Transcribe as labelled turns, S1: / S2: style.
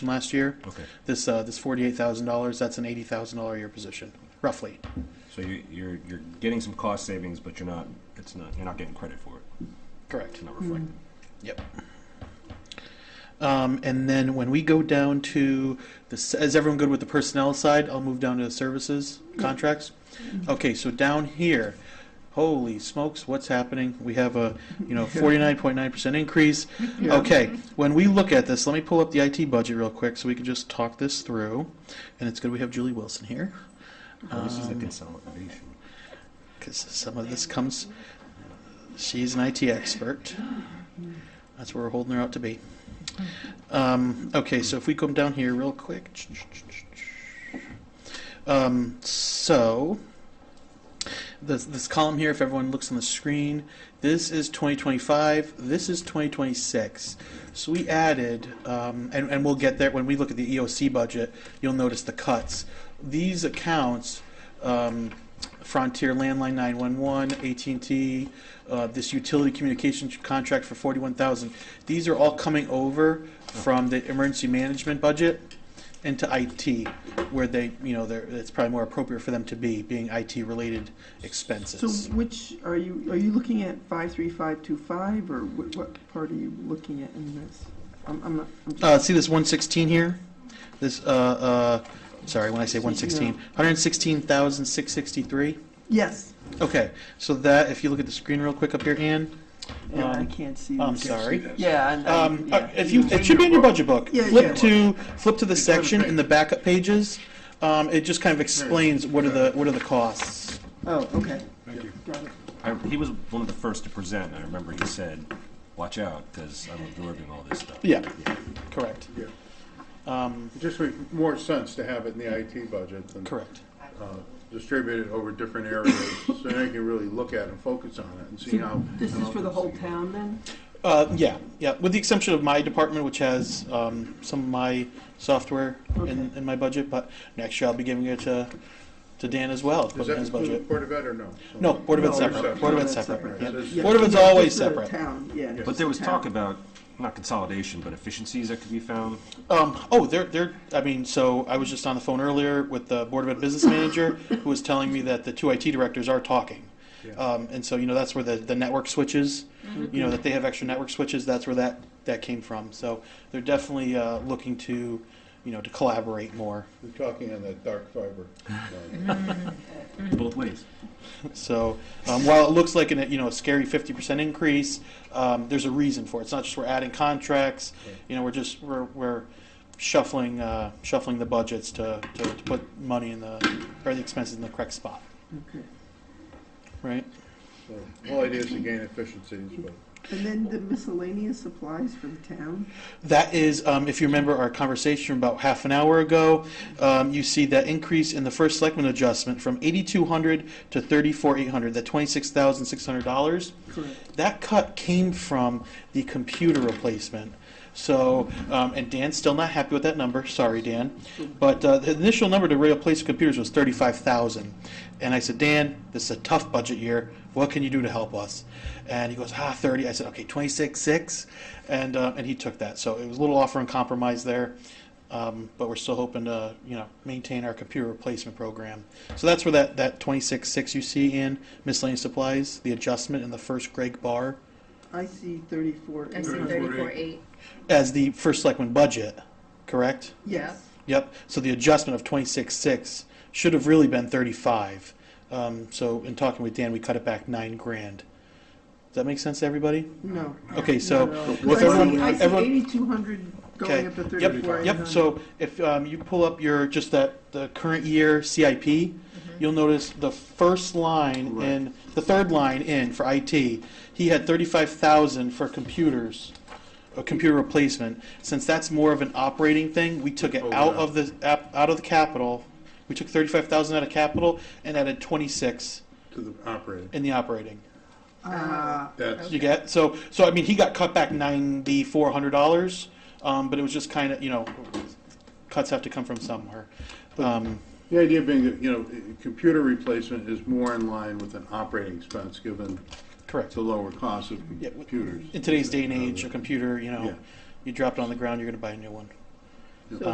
S1: from last year.
S2: Okay.
S1: This, uh, this forty-eight thousand dollars, that's an eighty thousand dollar a year position, roughly.
S2: So you, you're, you're getting some cost savings, but you're not, it's not, you're not getting credit for it.
S1: Correct.
S2: It's not reflected.
S1: Yep. Um, and then when we go down to the, s- is everyone good with the personnel side? I'll move down to the services contracts. Okay, so down here, holy smokes, what's happening? We have a, you know, forty-nine point nine percent increase. Okay, when we look at this, let me pull up the IT budget real quick so we can just talk this through. And it's good we have Julie Wilson here.
S2: Well, Oh, This is the
S1: Um,
S2: consolidation.
S1: because some of this comes. She's an IT expert. That's where we're holding her out to be. Um, okay, so if we come down here real quick. Um, so, this, this column here, if everyone looks on the screen, this is 2025, this is 2026. So we added, um, and, and we'll get there when we look at the EOC budget, you'll notice the cuts. These accounts, um, Frontier Landline 911, AT&T, uh, this utility communication contract for 41,000. These are all coming over from the emergency management budget into IT, where they, you know, they're, it's probably more appropriate for them to be, being IT-related
S3: So
S1: expenses.
S3: which, are you, are you looking at 53525, or what, what part are you looking at in this? I'm, I'm not, I'm
S1: Uh,
S3: just,
S1: see this 116 here? This, uh, uh, sorry, when I say
S3: Yeah.
S1: 116, 116,663.
S3: yes,
S1: Okay, so that, if you look at the screen real quick up here, Ann,
S3: yeah, I
S1: Um,
S3: can't see.
S1: I'm
S3: this.
S1: sorry.
S3: Yeah, and,
S1: Um,
S3: I-
S1: uh,
S3: yeah.
S1: if you, it should be in your budget book.
S3: Yeah, yeah.
S1: Flip to, flip to the
S4: It's on the
S1: section in the
S4: page.
S1: backup pages. Um, it just kind of explains what are the, what are the costs.
S3: Oh, okay,
S4: Thank you.
S3: got it.
S2: I, he was one of the first to present, I remember he said, watch out, because I'm absorbing all this stuff.
S1: Yeah, correct.
S4: Yeah.
S1: Um,
S4: It just makes more sense to have it in the IT budget than.
S1: correct.
S4: uh, Distribute it over different areas, so then you can really look at and focus on it and see how.
S3: So This is
S4: how
S3: for the
S4: it's-
S3: whole town, then?
S1: Uh, yeah, yeah, with the exception of my department, which has, um, some of my software in,
S3: Okay.
S1: in my budget, but next year I'll be giving it to, to Dan as well, to
S4: Does
S1: put in
S4: that
S1: his
S4: include
S1: budget.
S4: Board of Ed or no?
S1: No, Board of Ed's
S3: No,
S1: separate,
S4: separate.
S1: Board of Ed's
S3: That's
S1: separate,
S3: separate.
S1: yeah.
S4: That is-
S3: Yeah,
S1: Board of Ed's
S3: just
S1: always
S3: for the
S1: separate.
S3: Town, yeah.
S2: But there was talk about, not consolidation, but efficiencies that could be found.
S1: Um, oh, they're, they're, I mean, so I was just on the phone earlier with the Board of Ed Business Manager, who was telling me that the two IT directors are talking.
S4: Yeah.
S1: Um, and so, you know, that's where the, the network switches, you know, that they have extra network switches, that's where that, that came from. So they're definitely, uh, looking to, you know, to collaborate more.
S4: We're talking on that dark fiber.
S2: Both ways.
S1: So, um, while it looks like an, you know, a scary fifty percent increase, um, there's a reason for it. It's not just we're adding contracts, you know, we're just, we're, we're shuffling, uh, shuffling the budgets to, to, to put money in the, or the expenses in the correct spot,
S3: Okay.
S1: right?
S4: So, Whole idea is to gain efficiencies, but.
S3: And then the miscellaneous supplies for the town?
S1: That is, um, if you remember our conversation about half an hour ago, um, you see that increase in the first selectman adjustment from eighty-two hundred to thirty-four eight hundred, that twenty-six thousand six hundred dollars.
S3: Correct.
S1: That cut came from the computer replacement. So, um, and Dan's still not happy with that number. Sorry, Dan. But uh, the initial number to replace computers was thirty-five thousand, and I said, Dan, this is a tough budget year. What can you do to help us? And he goes, ah, thirty. I said, okay, twenty-six six, and uh, and he took that. So it was a little offer and compromise there. Um, but we're still hoping to, you know, maintain our computer replacement program. So that's where that, that twenty-six six you see in miscellaneous supplies, the adjustment in the first Greg bar
S3: I see 34.
S5: I see
S4: 34.8.
S5: thirty-four eight.
S1: as the first selectman budget, correct?
S3: Yes.
S1: Yep, so the adjustment of twenty-six six should have really been thirty-five. Um, so in talking with Dan, we cut it back nine grand. Does that make sense to everybody?
S3: No.
S1: Okay, so.
S3: Not at all. 'Cause
S1: with
S3: I see-
S1: everyone-
S3: I see
S1: everyone-
S3: 8,200 going up to
S1: Okay.
S3: 34.
S1: Yep, so if um, you pull up your, just that, the current year CIP,
S3: Mm-hmm.
S1: you'll notice the first line in, the third line in for IT, he had thirty-five thousand for computers, a computer replacement. Since that's more of an operating thing, we took it
S4: Oh,
S1: out
S4: yeah.
S1: of the, ap- out of the capital. We took thirty-five thousand out of capital and added twenty-six
S4: To the operating.
S1: in the operating.
S3: Ah,
S4: That's,
S1: You get, so, so I mean, he got cut back ninety-four hundred dollars, um, but it was just kind of, you know, cuts have to come from somewhere. Um,
S4: the idea being that, you know, computer replacement is more in line with an operating expense, given
S1: correct.
S4: the lower cost of
S1: Yeah, w-
S4: computers.
S1: In today's day and age, a computer, you
S4: Yeah.
S1: know, you drop it on the ground, you're gonna buy a new one.